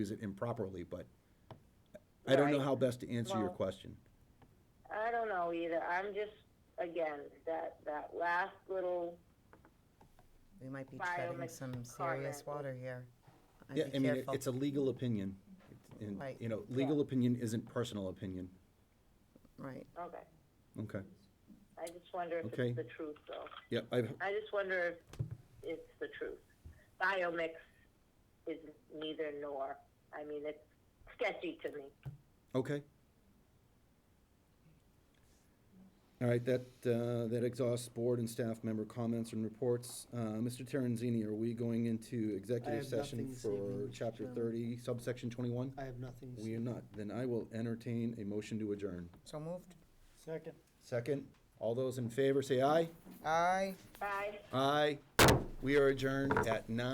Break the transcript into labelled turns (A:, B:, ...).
A: use it improperly, but I don't know
B: Right.
A: how best to answer your
B: Well-
A: question.
B: I don't know either. I'm just, again, that, that last little,
C: We might be
B: Bio
C: treading
B: mech-
C: some
B: car
C: serious
B: wreck.
C: water here. I'd
A: Yeah,
C: be
A: I mean, it-
C: careful.
A: it's a legal opinion. It's- And,
C: Right.
A: you know, legal opinion isn't personal opinion.
C: Right,
B: okay.
A: Okay,
B: I just wonder if
A: Okay.
B: it's the truth, though.
A: yeah, I've,
B: I just wonder if it's the truth. Biomix is neither nor. I mean, it's sketchy to me.
A: okay. All right, that, uh, that exhausts board and staff member comments and reports. Uh, Mr. Terenzini, are we going into executive
D: have nothing
A: session
D: this
A: for
D: evening, Mr.
A: chapter
D: Chairman.
A: thirty, subsection twenty-one?
D: I have nothing.
A: We are not. Then I will entertain a motion to adjourn.
C: so moved.
D: Second.
A: Second, all those in favor say aye.
C: Aye.
B: Bye.
A: Aye. We are adjourned at nine.